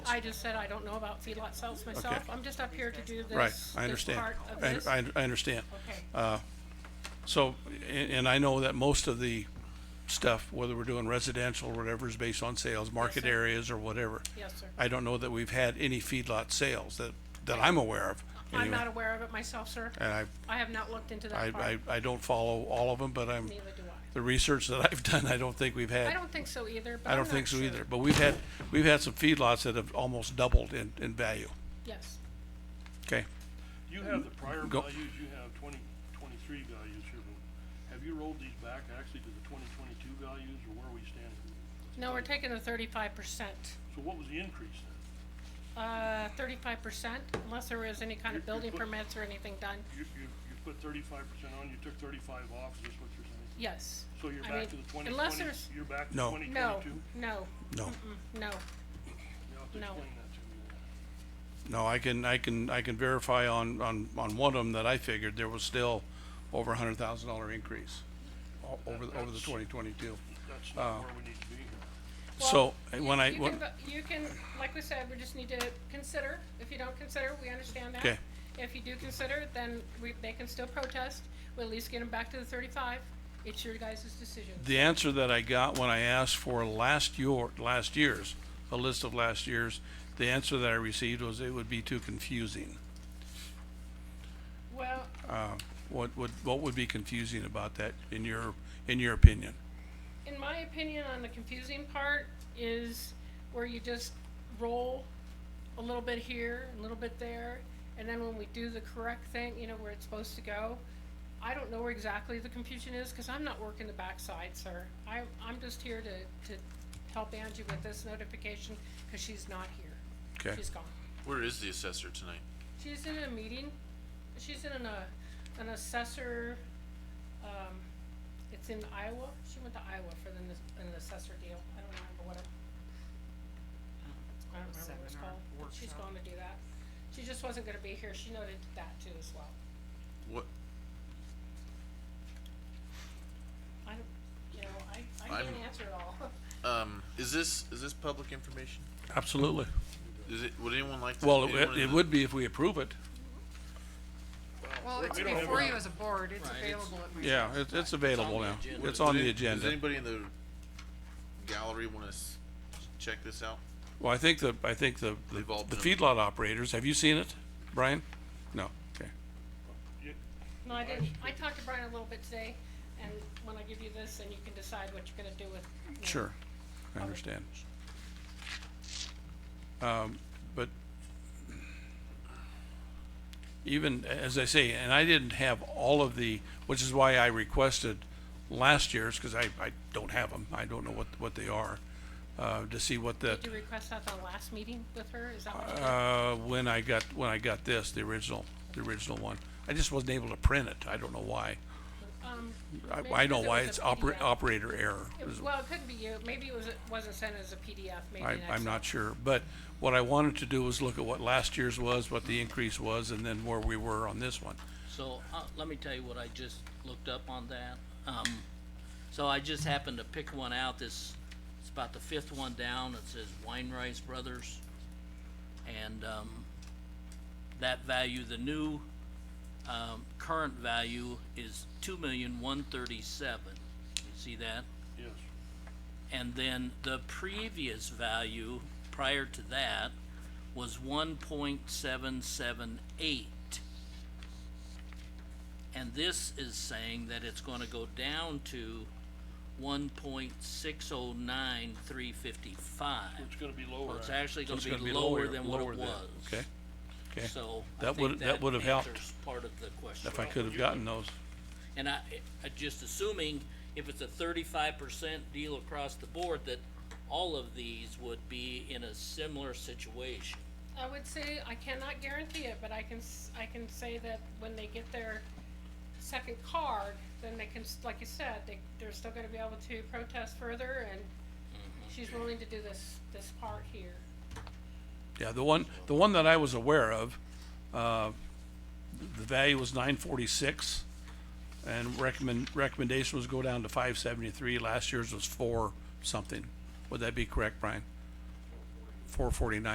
I just said I don't know about feedlot sales myself. I'm just up here to do this. Right, this I understand. part of I, this. I, uh, I understand. Okay. So, and, and I know that most of the stuff, whether we're doing residential or whatever, is based on sales, market sir. areas or whatever. Yes, sir. I don't know that we've had any feedlot sales that, that I'm aware of. I'm anyway. not aware of it myself, sir. And I, I have not looked into I, that I, part, I don't follow all of them, but I'm, neither do I. the research that I've done, I don't think we've had. I don't think so either, but I I'm don't not think so sure. either, but we've had, we've had some feedlots that have almost doubled in, in value, Yes, okay? You have the prior Go. values, you have twenty twenty-three values here, but have you rolled these back actually to the twenty twenty-two values or where we stand? no, we're taking the thirty-five percent, So what was the increase then? uh, thirty-five percent, unless there is any kind of You- you building put- permits or anything done, You, you, you put thirty-five percent on, you took thirty-five off, is this what you're saying? yes. So you're I back mean, to the twenty Unless twenty, there's, you're back to No. twenty twenty-two? no, no, no, No, You'll have to no. explain that to me. no, I can, I can, I can verify on, on, on one of them that I figured there was still over a hundred thousand dollar increase o- over, the- over the That's- twenty twenty-two. That's Uh. not where we need to be here. So, eh, Well, when you- I, you when, can vo- You can, like we said, we just need to consider, if you don't consider, we understand that. Okay. If you do consider, then we, they can still protest, we'll at least get them back to the thirty-five, it's your guys' decision. the answer that I got when I asked for last year, last year's, a list of last year's, the answer that I received was it would be too confusing. Well, What would, what would be confusing about that in your, in your opinion? in my opinion, on the confusing part is where you just roll a little bit here, a little bit there, and then when we do the correct thing, you know, where it's supposed to go. I don't know where exactly the confusion is, cause I'm not working the backside, sir. I, I'm just here to, to help Angie with this notification, cause she's not here. Okay. She's gone. Where is the assessor tonight? She's in a meeting, she's in an, uh, an assessor, um, it's in Iowa, she went to Iowa for the, nes- an assessor deal, I don't remember what it, I don't remember what it's Seminar, called. but She's workshop. going to do that, she just wasn't gonna be here, she noted that too as well, What, I don't, you know, I, I I'm- can't answer it all. um, is this, is this public information? Absolutely. Is it, would anyone like to? Well, anyone it, in it the- would be if we approve it. Well, it's don't have before a- you as a board, it's Right, it's- available at my. Yeah, it's, it's available the now. agenda. It's on Does the any- Does agenda. anybody in the gallery wanna s- check this out? Well, I think the, I think the, the They've all the been- feedlot operators, have you seen it, Brian? No, okay. You- No, I didn't, I talked to Brian a little bit today, and when I give you this, then you can decide what you're gonna do with, you know, Sure, I understand. Um, but even, as I say, and I didn't have all of the, which is why I requested last year's, cause I, I don't have them, I don't know what, what they are, uh, to see what the, Did you request that the last meeting with her, is that what you did? uh, when I got, when I got this, the original, the original one. I just wasn't able to print it, I don't know why. Um, I, Maybe I because know it why was it's a oper- PDF. operator error. It- is- Well, it couldn't be you, maybe it was, it wasn't sent as a PDF, maybe I, an I'm Excel. not sure, but what I wanted to do was look at what last year's was, what the increase was, and then where we were on this one. So, uh, let me tell you what I just looked up on that. Um, so I just happened to pick one out, this, it's about the fifth one down, it says Weinreich Brothers. And, um, that value, the new, um, current value is two million, one thirty-seven. You see that? Yes, And then the previous value prior to that was one point seven seven eight. And this is saying that it's gonna go down to one point six oh nine three fifty-five. it's gonna be lower. Well, it's actually. actually So gonna it's be lower than what lower it than- was. Okay, okay. So I That would, think that that would have helped answers part of the question. if I could have gotten those. And I, I just assuming if it's a thirty-five percent deal across the board, that all of these would be in a similar situation. I would say, I cannot guarantee it, but I can, s- I can say that when they get their second card, then they can, s- like you said, they, they're still gonna be able to protest further and she's willing to do this, this part here. Yeah, the one, the one that I was aware of, uh, the value was nine forty-six. And recommend, recommendation was go down to five seventy-three, last year's was four something. Would that be correct, Brian? Four forty-nine.